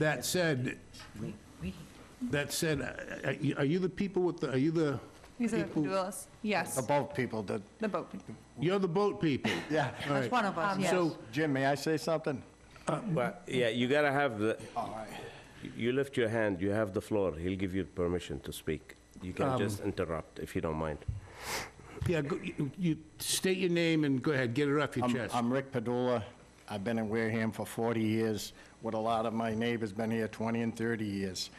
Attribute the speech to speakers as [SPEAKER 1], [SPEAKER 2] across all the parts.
[SPEAKER 1] That said, that said, I- I- are you the people with the, are you the
[SPEAKER 2] These are
[SPEAKER 1] people?
[SPEAKER 2] duels, yes,
[SPEAKER 3] The boat people, the,
[SPEAKER 2] the boat.
[SPEAKER 1] You're the boat people.
[SPEAKER 3] yeah.
[SPEAKER 1] All right.
[SPEAKER 4] one of us,
[SPEAKER 2] Um,
[SPEAKER 4] yes.
[SPEAKER 1] So,
[SPEAKER 3] Jim, may I say something?
[SPEAKER 5] But, yeah, you gotta have the,
[SPEAKER 3] All right.
[SPEAKER 5] you lift your hand, you have the floor, he'll give you permission to speak. You can just interrupt if you don't mind.
[SPEAKER 1] yeah, go- you- you state your name and go ahead, get it off your
[SPEAKER 3] I'm-
[SPEAKER 1] chest.
[SPEAKER 3] I'm Rick Padula. I've been in Wareham for 40 years, with a lot of my neighbors been here 20 and 30 years.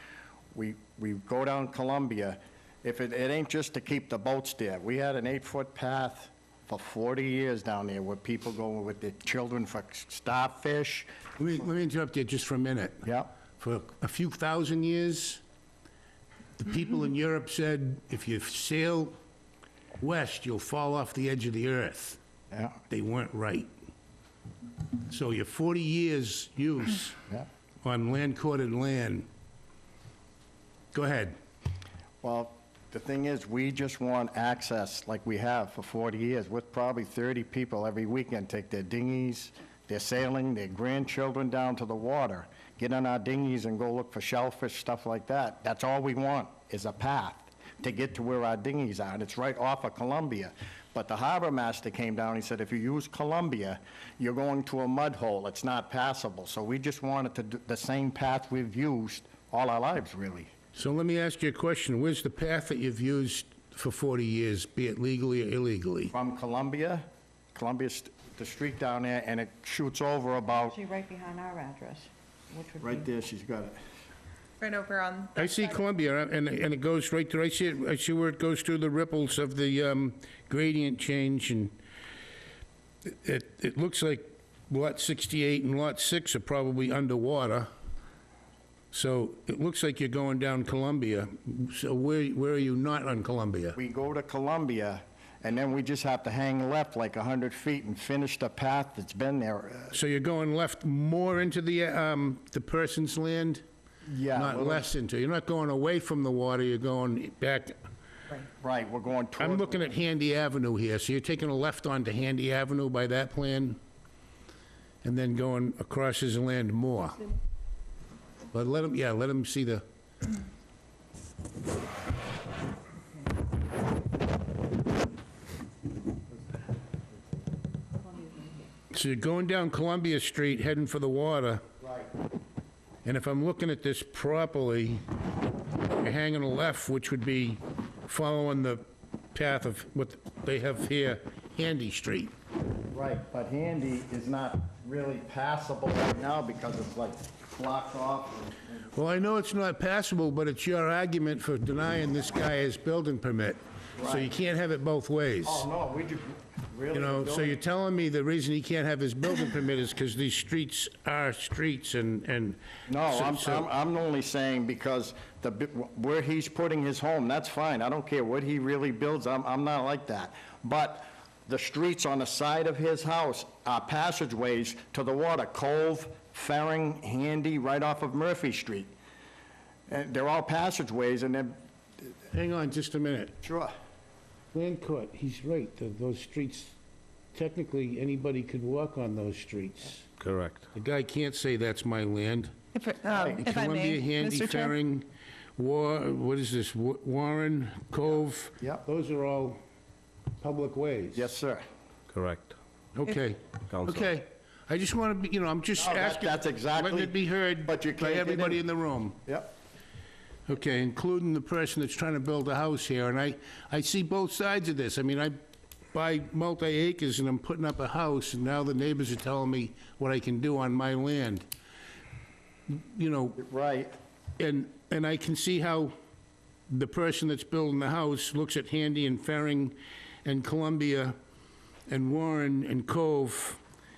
[SPEAKER 3] We, we go down Columbia, if it, it ain't just to keep the boats there. We had an eight-foot path for 40 years down there where people go with their children for starfish.
[SPEAKER 1] Let me, let me interrupt you just for a minute.
[SPEAKER 3] Yeah.
[SPEAKER 1] For a few thousand years, the people in Europe said, if you sail west, you'll fall off the edge of the earth.
[SPEAKER 3] Yeah,
[SPEAKER 1] They weren't right. So your 40 years use
[SPEAKER 3] yeah.
[SPEAKER 1] on land courted land, go ahead.
[SPEAKER 3] Well, the thing is, we just want access like we have for 40 years, with probably 30 people every weekend take their dinghies, their sailing, their grandchildren down to the water, get on our dinghies and go look for shellfish, stuff like that. That's all we want, is a path to get to where our dinghies are, and it's right off of Columbia. But the harbor master came down, he said, if you use Columbia, you're going to a mud hole, it's not passable. So we just wanted to, do the same path we've used all our lives, really.
[SPEAKER 1] So let me ask you a question. Where's the path that you've used for 40 years, be it legally or illegally?
[SPEAKER 3] from Columbia, Columbia's the street down there, and it shoots over about,
[SPEAKER 4] Actually, right behind our address, which would be...
[SPEAKER 3] right there, she's got it.
[SPEAKER 2] Right over on,
[SPEAKER 1] I see Columbia, and, and it goes right through, I see, it. I see where it goes through the ripples of the um, gradient change, and it, it looks like Lot 68 and Lot 6 are probably underwater. So it looks like you're going down Columbia. So where, where are you not on Columbia?
[SPEAKER 3] We go to Columbia, and then we just have to hang left like 100 feet and finish the path that's been there. Uh,
[SPEAKER 1] So you're going left more into the, um, the person's land?
[SPEAKER 3] Yeah,
[SPEAKER 1] Not
[SPEAKER 3] well-
[SPEAKER 1] less into, you're not going away from the water, you're going back,
[SPEAKER 3] Right, we're going toward...
[SPEAKER 1] I'm looking at Handy Avenue here, so you're taking a left onto Handy Avenue by that plan, and then going across his land more. But let him, yeah, let him see the, so you're going down Columbia Street, heading for the water.
[SPEAKER 3] Right.
[SPEAKER 1] And if I'm looking at this properly, you're hanging a left, which would be following the path of what they have here, Handy Street.
[SPEAKER 3] Right, but Handy is not really passable right now because it's like blocked off. and-
[SPEAKER 1] Well, I know it's not passable, but it's your argument for denying this guy his building permit. So you can't have it both ways.
[SPEAKER 3] Oh, no, we just, really...
[SPEAKER 1] You know, so
[SPEAKER 3] don't-
[SPEAKER 1] you're telling me the reason he can't have his building permit is because these streets are streets and, and...
[SPEAKER 3] No,
[SPEAKER 1] so-
[SPEAKER 3] I'm,
[SPEAKER 1] so-
[SPEAKER 3] I'm, I'm only saying because the, bi- where he's putting his home, that's fine. I don't care what he really builds, I'm, I'm not like that. But the streets on the side of his house are passageways to the water, Cove, Ferring, Handy, right off of Murphy Street. And they're all passageways and then,
[SPEAKER 1] Hang on just a minute.
[SPEAKER 3] sure,
[SPEAKER 1] Land court, he's right, th- those streets, technically, anybody could walk on those streets.
[SPEAKER 5] Correct.
[SPEAKER 1] The guy can't say that's my land.
[SPEAKER 2] if um, if I may,
[SPEAKER 1] Columbia, Handy,
[SPEAKER 2] Mr. Chair.
[SPEAKER 1] Ferring, War, what is this, Wa- Warren, Cove?
[SPEAKER 3] Yep.
[SPEAKER 1] Those are all public ways.
[SPEAKER 3] yes, sir.
[SPEAKER 5] Correct.
[SPEAKER 1] Okay,
[SPEAKER 5] Counsel.
[SPEAKER 1] okay. I just want to be, you know, I'm just
[SPEAKER 3] No, that-
[SPEAKER 1] asking.
[SPEAKER 3] that's exactly-
[SPEAKER 1] Letting it be heard
[SPEAKER 3] but you
[SPEAKER 1] by
[SPEAKER 3] can't get
[SPEAKER 1] everybody
[SPEAKER 3] in.
[SPEAKER 1] in the room.
[SPEAKER 3] Yep.
[SPEAKER 1] Okay, including the person that's trying to build a house here, and I, I see both sides of this. I mean, I buy multi-acres and I'm putting up a house, and now the neighbors are telling me what I can do on my land. You know,
[SPEAKER 3] Right,
[SPEAKER 1] and, and I can see how the person that's building the house looks at Handy and Ferring and Columbia and Warren and Cove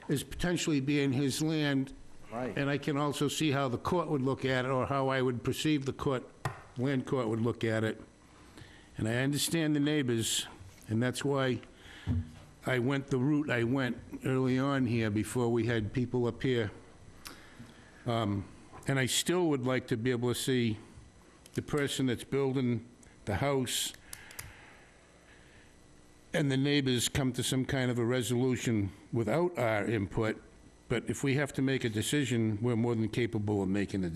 [SPEAKER 1] as potentially being his land.
[SPEAKER 3] Right.
[SPEAKER 1] And I can also see how the court would look at it, or how I would perceive the court, land court would look at it. And I understand the neighbors, and that's why I went the route I went early on here, before we had people up here. And I still would like to be able to see the person that's building the house and the neighbors come to some kind of a resolution without our input, but if we have to make a decision, we're more than capable of making a